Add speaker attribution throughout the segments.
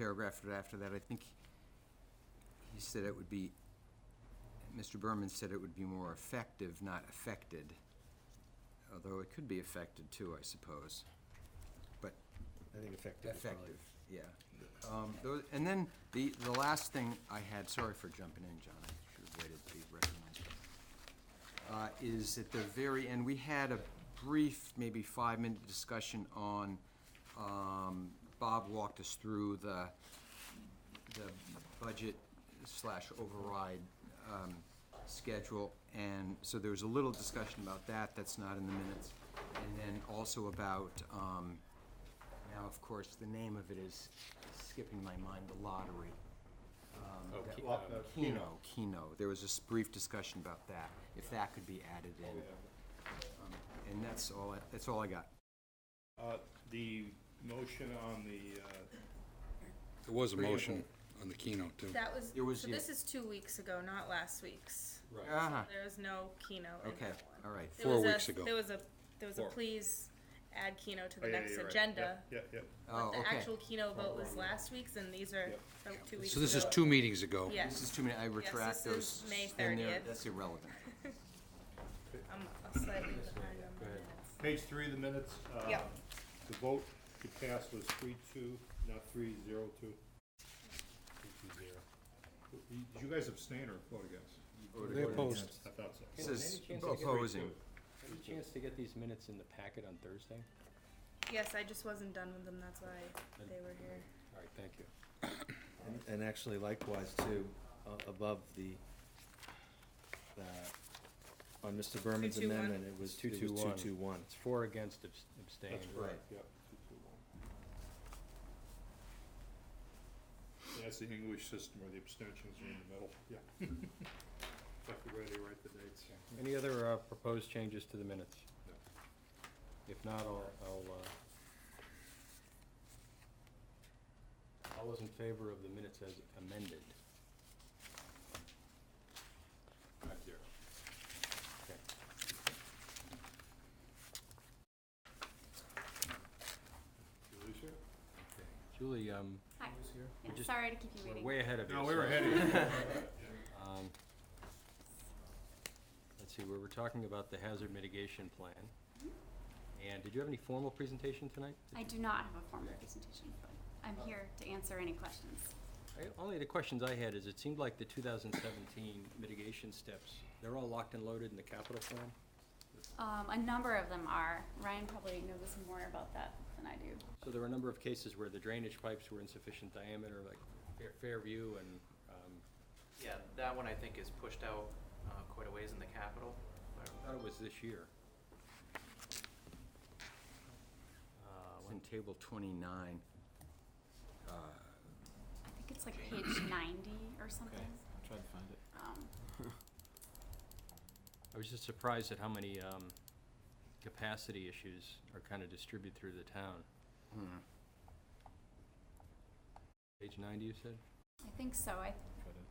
Speaker 1: paragraph after that, I think he said it would be, Mr. Berman said it would be more effective, not affected. Although it could be affected too, I suppose. But
Speaker 2: I think effective. is probably-
Speaker 1: effective, yeah. Um, tho- And then the, the last thing I had, sorry for jumping in, John, I should have waited to be recognized. uh, Is at the very end, we had a brief, maybe five-minute discussion on, um, Bob walked us through the, the budget slash override um, schedule, and so there was a little discussion about that, that's not in the minutes. And then also about, um, now, of course, the name of it is skipping my mind, the lottery. Um,
Speaker 3: Oh,
Speaker 1: that-
Speaker 3: Ke- um,
Speaker 1: Keno, Keno, there was this brief discussion about that, if that could be added in. Um, And that's all, I- that's all I got.
Speaker 3: Uh, The motion on the, uh,
Speaker 4: There was a
Speaker 1: Pretty
Speaker 4: motion on the keynote, too.
Speaker 5: That was,
Speaker 1: It was,
Speaker 5: so
Speaker 1: yeah.
Speaker 5: this is two weeks ago, not last week's.
Speaker 1: Ah,
Speaker 5: There was no keynote in
Speaker 1: Okay,
Speaker 5: that one.
Speaker 1: all right.
Speaker 5: There
Speaker 4: Four
Speaker 5: was a-
Speaker 4: weeks ago.
Speaker 5: There was a, there was a
Speaker 3: Four.
Speaker 5: please add keynote to the
Speaker 3: oh, yeah,
Speaker 5: next
Speaker 3: you're right.
Speaker 5: agenda.
Speaker 3: Yeah, yeah, yeah.
Speaker 1: Oh,
Speaker 5: But the
Speaker 1: okay.
Speaker 5: actual keynote vote was last week's and these are
Speaker 3: Yep.
Speaker 5: from two weeks ago.
Speaker 4: So this is two meetings ago.
Speaker 5: Yeah.
Speaker 1: This is too many, I retract
Speaker 5: this
Speaker 1: those.
Speaker 5: is May
Speaker 1: then they're-
Speaker 5: 30th.
Speaker 1: That's irrelevant.
Speaker 5: I'm slightly behind on my
Speaker 3: ahead.
Speaker 5: minutes.
Speaker 3: Page three of the minutes. uh,
Speaker 5: Yep.
Speaker 3: The vote to pass was three two, not three zero two. Three two zero. Y- Did you guys abstain or vote against?
Speaker 2: They opposed.
Speaker 3: I thought so.
Speaker 1: This
Speaker 6: Hey, any
Speaker 1: is
Speaker 6: chance I could-
Speaker 1: opposing.
Speaker 6: Any chance to get these minutes in the packet on Thursday?
Speaker 5: Yes, I just wasn't done with them, that's why they were here.
Speaker 6: All right, thank you.
Speaker 2: And- And actually likewise too, uh, above the, uh, on Mr. Berman's
Speaker 5: 2-2-1.
Speaker 2: amendment, it was, it was
Speaker 6: Two-two-one.
Speaker 2: two-two-one.
Speaker 6: It's four against abs- abstain.
Speaker 3: That's
Speaker 1: Right.
Speaker 3: right, yep, two two one. That's the English system where the abstentions are in the middle, yeah. That's the way they write the dates.
Speaker 6: Any other uh, proposed changes to the minutes?
Speaker 3: No.
Speaker 6: If not, I'll, I'll, uh, uh, all those in favor of the minutes as amended?
Speaker 3: Five zero.
Speaker 6: Okay.
Speaker 3: You lose here?
Speaker 6: Julie, um,
Speaker 7: Hi. Yeah,
Speaker 6: Just-
Speaker 7: sorry to keep you
Speaker 6: we're
Speaker 7: waiting.
Speaker 6: way ahead of you.
Speaker 3: No, we were
Speaker 6: so-
Speaker 3: ahead of you.
Speaker 6: Um, Let's see, we were talking about the hazard mitigation plan. And did you have any formal presentation tonight?
Speaker 7: I do not have a formal presentation. I'm here to answer any questions.
Speaker 6: I- Only the questions I had is it seemed like the 2017 mitigation steps, they're all locked and loaded in the capital plan?
Speaker 7: Um, a number of them are. Ryan probably knows more about that than I do.
Speaker 6: So there were a number of cases where the drainage pipes were insufficient diameter, like Fair- Fairview and, um,
Speaker 8: Yeah, that one I think is pushed out uh, quite a ways in the capital. if I
Speaker 6: I
Speaker 8: remember.
Speaker 6: thought it was this year. Uh,
Speaker 1: It's
Speaker 6: when-
Speaker 1: in table twenty-nine. Uh,
Speaker 7: I think it's like page ninety or something.
Speaker 6: I'm trying to find it.
Speaker 7: Um,
Speaker 6: I was just surprised at how many um, capacity issues are kind of distributed through the town.
Speaker 1: Hmm.
Speaker 6: Page 90, you said?
Speaker 7: I think so. I,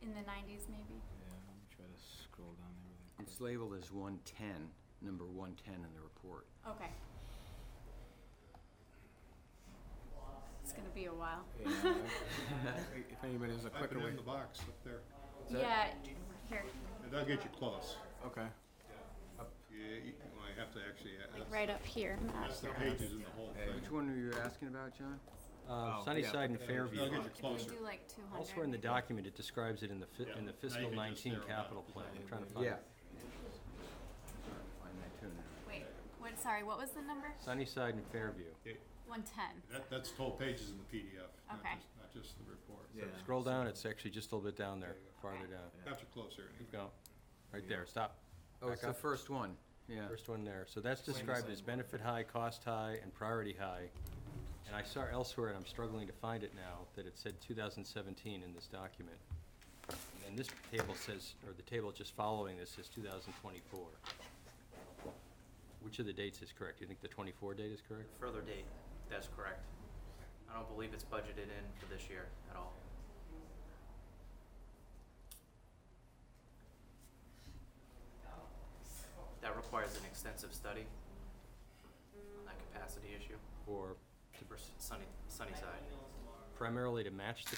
Speaker 7: in the nineties maybe.
Speaker 1: It's labeled as one-ten, number one-ten in the report.
Speaker 7: Okay. It's gonna be a while.
Speaker 9: If anybody has a
Speaker 3: Type
Speaker 9: quicker
Speaker 3: it
Speaker 9: way.
Speaker 3: in the box up there.
Speaker 7: Yeah, here,
Speaker 3: That'll get you close.
Speaker 9: Okay.
Speaker 3: Yeah, you, well, I have to actually, uh,
Speaker 7: like
Speaker 3: that's,
Speaker 7: right up here.
Speaker 3: that's the pages in the whole thing.
Speaker 1: Which one were you asking about, John?
Speaker 3: Oh,
Speaker 6: Uh, Sunnyside and Fairview.
Speaker 3: That'll get you
Speaker 7: Can we
Speaker 3: closer.
Speaker 7: do like two hundred?
Speaker 6: Elsewhere in the document, it describes it in the fi-
Speaker 3: Yeah.
Speaker 6: in the
Speaker 3: Now you
Speaker 6: fiscal
Speaker 3: can just
Speaker 6: 19
Speaker 3: narrow down.
Speaker 6: capital plan. I'm trying to find
Speaker 1: Yeah.
Speaker 6: it.
Speaker 1: Find that too now.
Speaker 7: Wait, what, sorry, what was the number?
Speaker 6: Sunnyside and Fairview.
Speaker 7: One ten.
Speaker 3: That, that's total pages in the PDF, not
Speaker 7: Okay.
Speaker 3: just, not just the report.
Speaker 9: Yeah.
Speaker 6: Scroll down, it's actually just a little bit down there, farther down.
Speaker 3: Got you closer anyway.
Speaker 6: Keep going. Right there, stop.
Speaker 1: Oh, it's the first one, yeah.
Speaker 6: First one there. So that's described as benefit high, cost high, and priority high. And I saw elsewhere, and I'm struggling to find it now, that it said 2017 in this document. And this table says, or the table just following this is 2024. Which of the dates is correct? Do you think the 24 date is correct?
Speaker 8: Further date, that's correct. I don't believe it's budgeted in for this year at all. That requires an extensive study on that capacity issue
Speaker 6: Or
Speaker 8: for Sunny, Sunnyside.
Speaker 6: primarily to match the